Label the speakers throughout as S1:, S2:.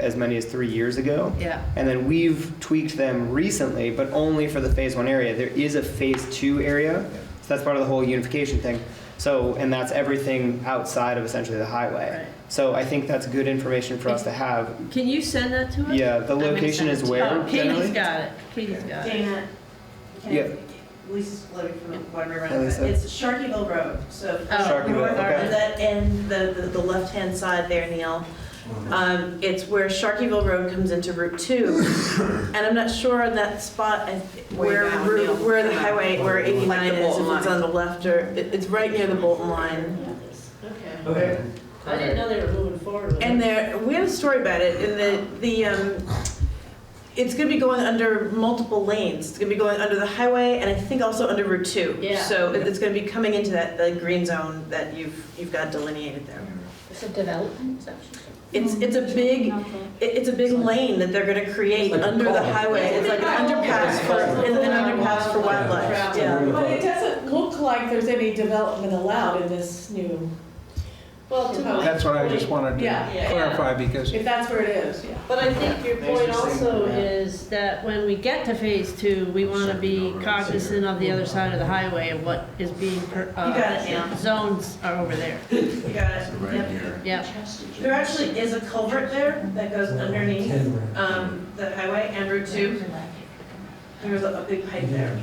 S1: as many as three years ago.
S2: Yeah.
S1: And then we've tweaked them recently, but only for the phase one area. There is a phase two area, so that's part of the whole unification thing. So, and that's everything outside of essentially the highway.
S2: Right.
S1: So I think that's good information for us to have.
S2: Can you send that to us?
S1: Yeah, the
S2: I'm gonna
S1: location
S2: send
S1: is
S2: it to-
S1: where,
S2: Oh, Katie's
S1: generally?
S2: got it, Katie's got it.
S3: Dana,
S1: Yeah.
S3: can, Lisa's floating from the bottom of
S1: Hi,
S3: around,
S1: Lisa.
S3: but it's Sharkyville Road, so.
S2: Oh. Sharkyville,
S3: north of
S1: okay.
S3: That end, the, the, the left-hand side there, Neil. Um, it's where Sharkyville Road comes into Route Two, and I'm not sure on that spot and where,
S4: down, Neil.
S3: Route- where the highway, where
S4: Like the
S3: eighty-nine is, if
S4: Bolton
S3: it's
S4: line.
S3: on the left or, it, it's right near the Bolton line.
S4: Okay.
S5: Okay.
S4: I didn't know they were moving forward with it.
S3: And there, we had a story about it, and the, the, um, it's gonna be going under multiple lanes. It's gonna be going under the highway and I think also under Route Two.
S4: Yeah.
S3: So it- it's gonna be coming into that, the green zone that you've, you've got delineated there.
S2: It's a development section.
S3: It's, it's a big, it- it's a big lane that they're gonna create
S5: It's like a
S3: under the
S5: culvert.
S3: highway. Oh, It's like an underpass for, an an underpass for wildlife, yeah.
S4: But it doesn't look like there's any development allowed in this new,
S6: Well, to my
S7: That's what I just wanted
S4: Yeah.
S7: to
S4: Yeah.
S7: clarify because
S4: if that's where it is, yeah.
S6: But I think your point also
S2: Is that when we get to phase two, we want to be cognizant of the other side of the highway and what is being, per- uh,
S3: You got it, Ann.
S2: zones are over there.
S3: You got it. Yep.
S5: here.
S2: Yeah.
S3: There actually is a culvert there that goes underneath, um, the highway and Route Two. There's a a big pipe there.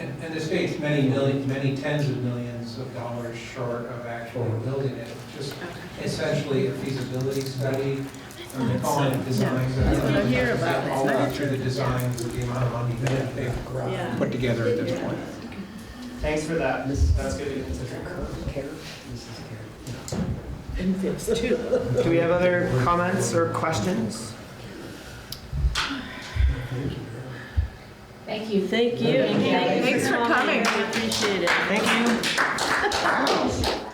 S8: And, and the state's many millions, many tens of millions of dollars short of actually building it. Just essentially a feasibility study, and they're calling it designs.
S2: That's what I hear about it.
S8: All the way through the design, with the amount of money that they've
S4: Yeah.
S7: put together at this point.
S1: Thanks for that. That's good to consider. Do we have other comments or questions?
S6: Thank you.
S2: Thank you.
S3: Thanks for coming.
S2: Appreciate it.
S1: Thank you.